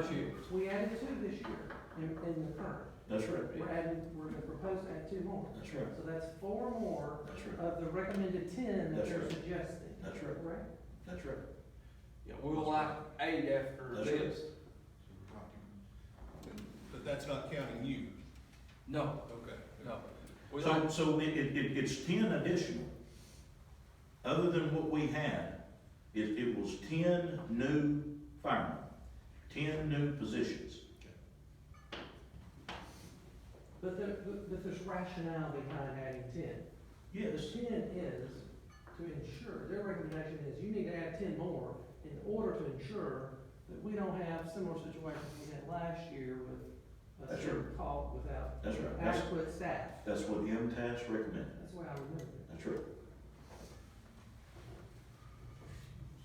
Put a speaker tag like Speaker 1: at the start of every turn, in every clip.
Speaker 1: This year.
Speaker 2: We added two this year in, in the current.
Speaker 1: That's right.
Speaker 2: We're adding, we're gonna propose to add two more.
Speaker 1: That's right.
Speaker 2: So that's four more
Speaker 1: That's right.
Speaker 2: of the recommended ten that
Speaker 1: That's
Speaker 2: they're
Speaker 1: right.
Speaker 2: suggesting,
Speaker 1: That's right.
Speaker 2: right?
Speaker 1: That's right.
Speaker 3: Yeah, we'll like eight after
Speaker 1: That's
Speaker 3: this.
Speaker 4: So we're talking- But that's not counting you,
Speaker 3: No,
Speaker 4: okay.
Speaker 3: no. We
Speaker 1: So,
Speaker 3: like,
Speaker 1: so it, it, it- it's ten additional. Other than what we had, it, it was ten new firemen, ten new positions.
Speaker 2: But there, but but there's rationale behind adding ten. The
Speaker 1: Yes,
Speaker 2: ten is to ensure, their recommendation is you need to add ten more in order to ensure that we don't have similar situations we had last year with a
Speaker 1: That's
Speaker 2: certain call without
Speaker 1: that's right. That's,
Speaker 2: adequate staff.
Speaker 1: that's what MTS recommended.
Speaker 2: That's why I remember it.
Speaker 1: That's right.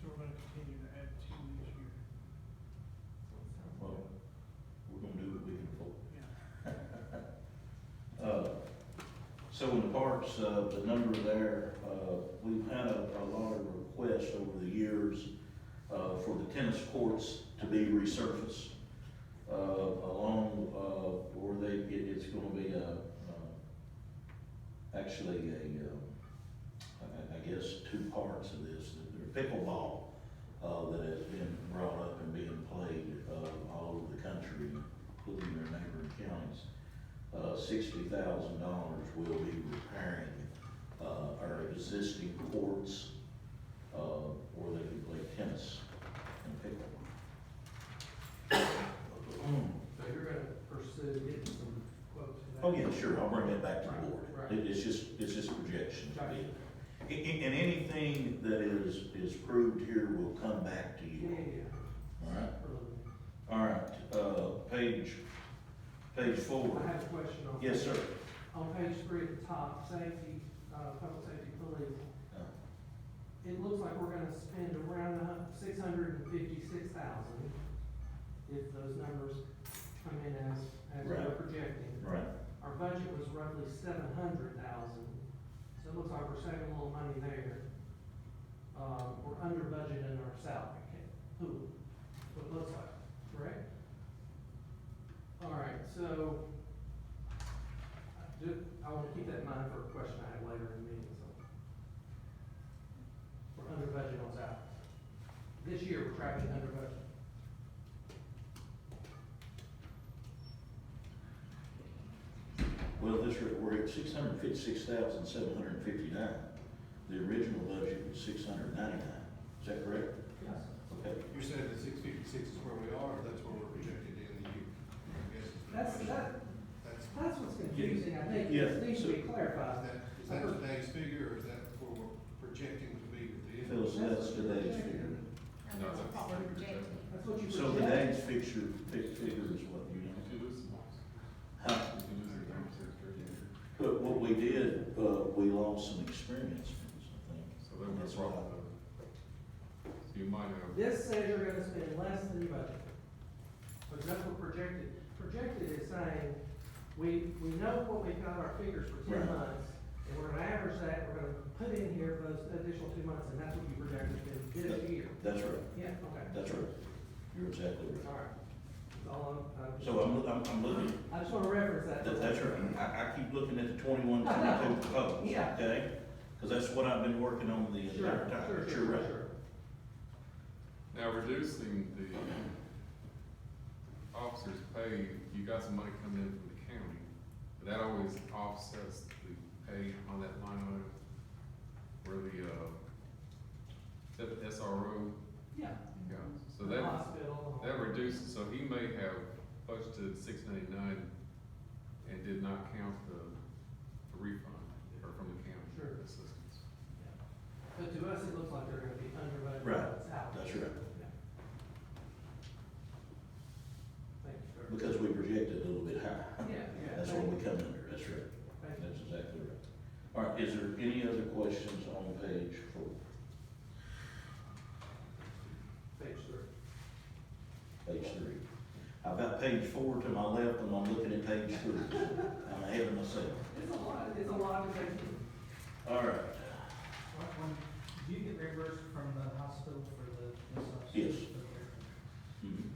Speaker 5: So we're gonna continue to add ten this year,
Speaker 1: Well, we're gonna do what we can afford.
Speaker 5: yeah.
Speaker 1: Uh, So in the parks, uh, the number there, uh, we've had a a lot of requests over the years uh, for the tennis courts to be resurfaced uh, along, uh, or they, it- it's gonna be a, uh, actually a, uh, I I guess, two parts of this. There's pickleball uh, that has been brought up and being played uh, all over the country, including their neighboring counties uh, sixty thousand dollars will be repairing, uh, our existing courts, uh, where they can play tennis and pickleball.
Speaker 2: So you're gonna pursue getting some quotes for that?
Speaker 1: Oh, yeah, sure, I'll bring that back to the
Speaker 2: Right,
Speaker 1: board.
Speaker 2: right.
Speaker 1: It- It's just, it's just projections.
Speaker 2: Gotcha.
Speaker 1: A- a- And anything that is, is proved here will come back to
Speaker 2: Yeah, yeah,
Speaker 1: you, all
Speaker 2: yeah.
Speaker 1: right? All right, uh, page, page four.
Speaker 2: I have a question on.
Speaker 1: Yes, sir.
Speaker 2: On page three at the top, safety, uh, public safety police,
Speaker 1: Uh,
Speaker 2: it looks like we're gonna spend around six hundred and fifty-six thousand if those numbers come in as, as we're
Speaker 1: Right.
Speaker 2: projecting.
Speaker 1: Right,
Speaker 2: Our budget was roughly seven hundred thousand, so it looks like we're saving a little money there. Um, we're under budget in our salary cap, pool, what it looks like, correct? All right, so, I do, I wanna keep that in mind for a question I have later in the meeting, so. We're under budget on salaries. This year, we're tracking under budget.
Speaker 1: Well, this, re- we're at six hundred fifty-six thousand, seven hundred and fifty-nine. The original budget was six hundred ninety-nine. Is that correct?
Speaker 2: Yes.
Speaker 1: Okay.
Speaker 4: You're saying that six fifty-six is where we are, or that's where we're projected in the year? I guess is the
Speaker 2: That's,
Speaker 4: question.
Speaker 2: that,
Speaker 4: That's,
Speaker 2: that's what's confusing, I think,
Speaker 1: Yeah,
Speaker 2: it needs to
Speaker 1: so-
Speaker 2: be clarified.
Speaker 4: is that, is that today's figure, or is that where we're projecting to be at the end?
Speaker 1: Phyllis, that's today's figure.
Speaker 6: And that's what we're projecting.
Speaker 2: That's what you
Speaker 1: So
Speaker 2: project.
Speaker 1: today's fixture, fig- figure is what you know? Huh? But what we did, uh, we lost some experience from this, I think.
Speaker 7: So then we're wrong. So you might have,
Speaker 2: This says you're gonna spend less than your budget. But that's what projected, projected is saying, we, we know what we've got our figures for
Speaker 1: Right.
Speaker 2: ten months, and we're gonna average that, we're gonna put in here those additional two months, and that's what you projected in this year.
Speaker 1: That's right,
Speaker 2: Yeah, okay,
Speaker 1: that's right. You're exactly right.
Speaker 2: all right. That's all I'm, I'm.
Speaker 1: So I'm, loo- I'm, I'm looking,
Speaker 2: I just wanna reference that.
Speaker 1: that, that's right. I, I keep looking at the twenty-one, twenty-two proposed,
Speaker 2: Yeah.
Speaker 1: okay? Cause that's what I've been working on the entire
Speaker 2: Sure,
Speaker 1: time.
Speaker 2: sure,
Speaker 1: You're
Speaker 2: sure,
Speaker 1: right.
Speaker 2: sure.
Speaker 7: now reducing the officers' pay, you got some money coming in from the county, but that always offsets the pay on that line item. Where the, uh, that the SRO,
Speaker 2: Yeah.
Speaker 7: yeah, so
Speaker 2: The
Speaker 7: that,
Speaker 2: Hospital.
Speaker 7: that reduces, so he may have budgeted six ninety-nine and did not count the the refund or from the county.
Speaker 2: Sure.
Speaker 7: Assistance.
Speaker 2: But to us, it looks like they're gonna be under budget.
Speaker 1: Right.
Speaker 2: It's out.
Speaker 1: That's right.
Speaker 2: Yeah. Thank you, sir.
Speaker 1: Because we projected a little bit higher.
Speaker 2: Yeah, yeah.
Speaker 1: That's what we come under, that's right.
Speaker 2: Thank you.
Speaker 1: That's exactly right. All right, is there any other questions on page four?
Speaker 2: Thanks, sir.
Speaker 1: Page three. I've got page four to my left and I'm looking at page three. I'm ahead of myself.
Speaker 2: It's a lot, it's a lot of things.
Speaker 1: All right,
Speaker 8: One- one, Do you get reimbursed from the hospital for the? the substance?
Speaker 1: Yes. Mhm.